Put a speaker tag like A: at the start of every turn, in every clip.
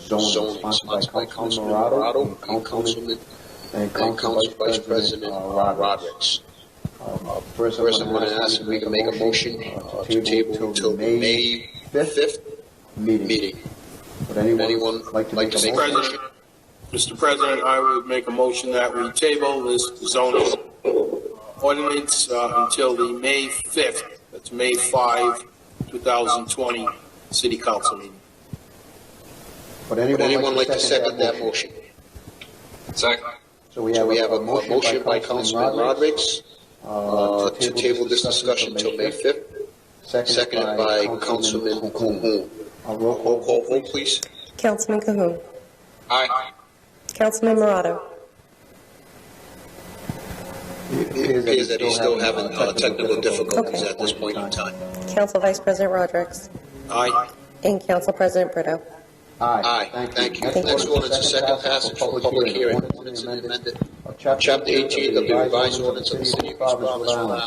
A: zoning sponsored by Councilman Morado and Councilman, and
B: and
A: Council Vice President uh,
B: Roderick.
A: Rodrick.
B: Um,
A: First, I want to ask if we can make a motion uh, to table till the May
B: fifth
A: 5th
B: meeting.
A: meeting.
B: Would
A: Would anyone like to make a
B: motion?
A: motion?
C: President, Mr. President, I would make a motion that we table this zoning ordinance uh, until the May 5th, that's May 5, 2020, city council meeting.
B: Would
A: Would anyone like to second that motion?
D: Second.
B: So we
A: So
B: have
A: we have
B: a
A: a mo- motion by Councilman Rodrick uh,
B: Roderick
A: to table this discussion till May 5th,
B: fifth,
A: seconded by Councilman Cahoon.
B: Roll
A: Roll call, vote, please.
E: Councilman Cahoon.
D: Aye.
E: Councilman Morado.
A: It appears that he's still having uh, technical difficulties
E: Okay.
A: at this point in time.
E: Council Vice President Rodrick.
C: Aye.
E: And Council President Brito.
A: Aye, thank you.
E: Thank
A: Next ordinance is second passage for public hearing, ordinance
B: and amended
A: amended
B: Chapter 18 of the revised ordinance of the city of East Providence, Rhode
A: Island,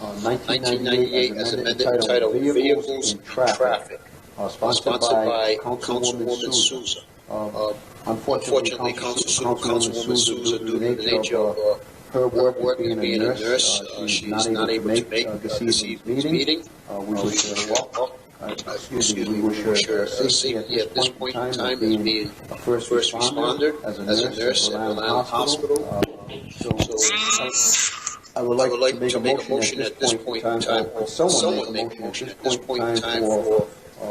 A: uh,
B: Island,
A: 1998, as amended, titled Vehicles and Traffic,
B: uh,
A: sponsored by Councilwoman
B: Souza.
A: Souza.
B: Uh,
A: Uh, Unfortunately, Council- Councilwoman Souza, due to the nature of uh,
B: her
A: her work and being a nurse, uh, she is not able to make uh,
B: the
A: this evening's meeting. Oh,
B: Uh,
A: We wish her well.
B: uh,
A: Uh, Excuse me, we wish her uh, safety at this point in time as being
B: a first responder, as a nurse at Rhode Island Hospital. Uh,
A: so.
B: So I would
A: I would like to make a motion at this point in time, or someone make a motion at this point in time for
B: uh,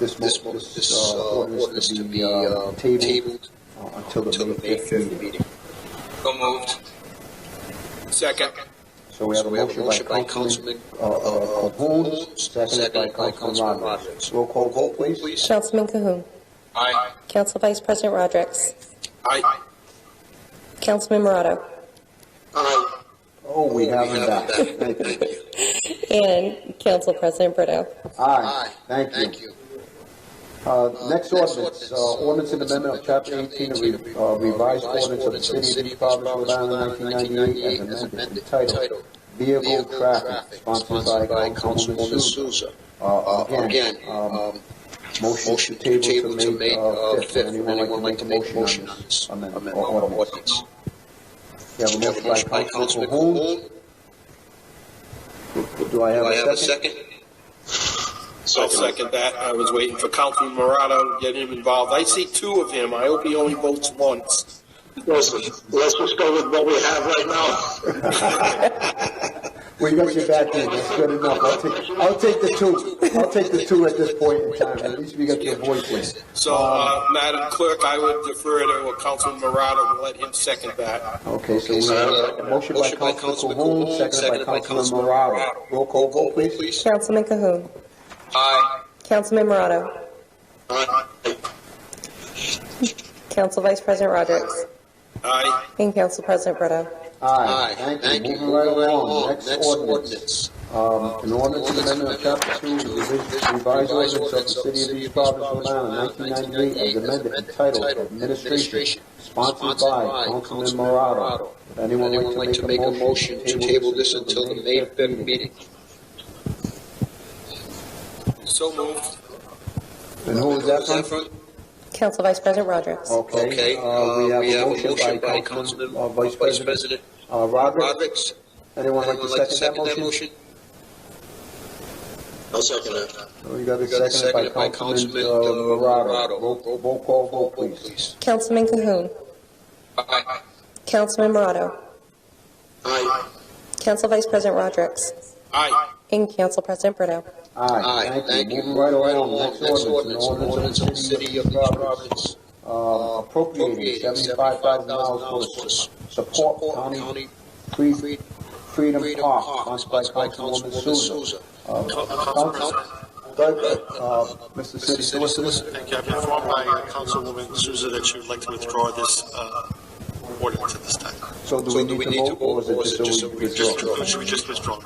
A: this, mo- this uh, ordinance to be uh,
B: tabled
A: tabled
B: uh, until
A: until
B: the May 5th meeting.
A: meeting.
D: So moved.
C: Second.
B: So we have a motion by Councilman uh, Cahoon, seconded by Councilman Rogers. Roll call vote, please.
E: Councilman Cahoon.
D: Aye.
E: Council Vice President Rodrick.
C: Aye.
E: Councilman Morado.
C: Aye.
B: Oh, we have it back. Thank you.
E: And Council President Brito.
B: Aye,
A: Aye,
B: thank
A: thank
B: you.
A: you.
B: Uh,
A: Next
B: Next ordinance, uh, ordinance and amendment of Chapter 18 of re- uh, revised ordinance of the City of Providence, Rhode Island, 1998, as amended, entitled Vehicle Traffic, sponsored by Councilwoman Souza. Uh,
A: Uh, Again, um, motion to table to May uh, 5th. Anyone like to make a motion on this amendment or ordinance?
B: You have a
A: We have a
B: motion by Councilman Cahoon.
A: Cahoon.
B: Do I
A: Do I
B: have
A: have a
B: second?
A: second?
C: I'll second that. I was waiting for Councilman Morado to get him involved. I see two of him. I hope he only votes once.
F: Let's, let's just go with what we have right now.
B: We got your back in, that's good enough. I'll take, I'll take the two, I'll take the two at this point in time, at least we got your voice in.
C: So, uh, Madam Clerk, I would defer to Councilman Morado and let him second that.
B: Okay, so
A: Okay,
B: we
A: so,
B: have a
A: uh,
B: motion by Councilman Cahoon, seconded by Councilman Morado. Roll call vote, please.
E: Councilman Cahoon.
D: Aye.
E: Councilman Morado.
F: Aye.
E: Council Vice President Rodrick.
C: Aye.
E: And Council President Brito.
B: Aye,
A: Aye,
B: thank you, moving
A: Move
B: right along, next ordinance. Um, an ordinance
A: Ordinance
B: amendment of
A: amendment
B: chapter two,
A: of
B: of the
A: Chapter Two,
B: revised revised ordinance of the city of East Providence, Rhode Island, nineteen ninety-eight, as amended, entitled Administration, sponsored by Councilman Morado. If anyone
A: Anyone like to make a motion to table this until the May 5th meeting?
C: So moved.
B: And who was that from?
E: Council Vice President Rodrick.
B: Okay,
A: Okay,
B: uh, we have a motion by Councilman, uh, Vice President, uh, Roderick.
A: Rodrick.
B: Anyone like to second that motion?
F: I'll second that.
B: We got
A: We got it
B: a Oh, second by Councilman, uh, Morado. Roll, roll call vote, please.
A: please.
E: Councilman Cahoon.
D: Aye.
E: Councilman Morado.
F: Aye.
E: Council Vice President Rodrick.
C: Aye.
E: And Council President Brito.
B: Aye, thank you, moving right along, next ordinance, an ordinance of the city of Providence,
A: Providence
B: uh, appropriating
A: appropriating
B: seventy-five thousand dollars for the
A: $75,000
B: support county Free- Freedom
A: Freedom
B: Park,
A: Park,
B: sponsored by Councilwoman Souza. Uh, Council- Doug, uh, Mr. City Solicitor,
G: Thank you. I've been informed by uh, Councilwoman Souza that she would like to withdraw this uh, ordinance at this time.
B: so do we need to vote, or is it just a withdrawal?
G: So Should we just withdraw?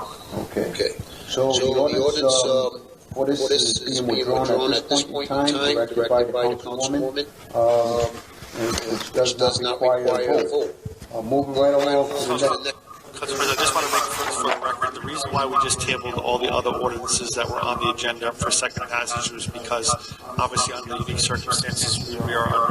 B: Okay,
A: Okay,
B: so the ordinance, um, what is, is being withdrawn at this point in time, directed by the Councilwoman, um, and which
A: which
B: does not require a vote. Uh, moving right along to the next,
G: Council President, I just want to make for for the record, the reason why we just tabled all the other ordinances that were on the agenda for second passage was because obviously under unique circumstances, we- we are